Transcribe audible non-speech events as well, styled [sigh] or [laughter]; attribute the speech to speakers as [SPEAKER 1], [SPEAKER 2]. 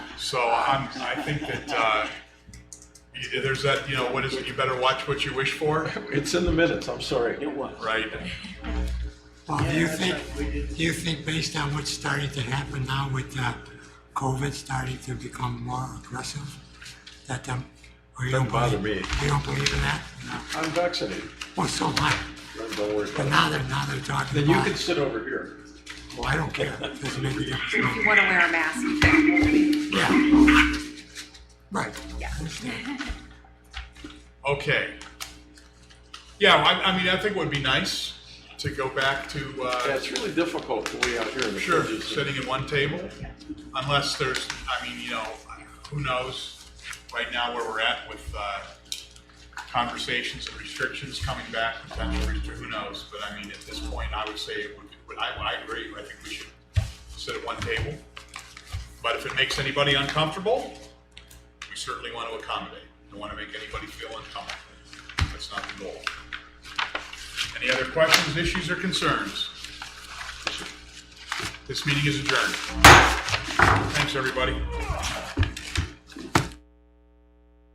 [SPEAKER 1] So I'm, I think that, uh, y- there's that, you know, what is it, you better watch what you wish for,
[SPEAKER 2] It's in the minutes, I'm sorry.
[SPEAKER 3] It was.
[SPEAKER 1] right?
[SPEAKER 4] Bob, do you think, do you think based on what's starting to happen now with uh, COVID starting to become more aggressive, that, um, or you don't
[SPEAKER 2] Doesn't bother
[SPEAKER 4] believe-
[SPEAKER 2] me.
[SPEAKER 4] You don't believe in that? No.
[SPEAKER 2] I'm vaccinated.
[SPEAKER 4] Well, so what?
[SPEAKER 2] Don't don't worry about
[SPEAKER 4] But
[SPEAKER 2] it.
[SPEAKER 4] now they're, now they're talking
[SPEAKER 2] Then you
[SPEAKER 4] about,
[SPEAKER 2] can sit over here.
[SPEAKER 4] well, I don't care. Doesn't make a
[SPEAKER 2] [laughs]
[SPEAKER 4] difference.
[SPEAKER 5] If you want to wear a mask, you can.
[SPEAKER 4] Yeah. Right.
[SPEAKER 5] Yeah.
[SPEAKER 1] Okay. Yeah, I, I mean, I think it would be nice to go back to,
[SPEAKER 2] Yeah,
[SPEAKER 1] uh,
[SPEAKER 2] it's really difficult to way out here in the
[SPEAKER 1] sure,
[SPEAKER 2] fridges.
[SPEAKER 1] sitting at one table, unless there's, I mean, you know, who knows right now where we're at with, uh, conversations and restrictions coming back, potential restrictions, who knows? But I mean, at this point, I would say, it would- would- I, I agree, I think we should sit at one table. But if it makes anybody uncomfortable, we certainly want to accommodate. Don't want to make anybody feel uncomfortable. That's not the goal. Any other questions, issues, or concerns? This meeting is adjourned. Thanks, everybody.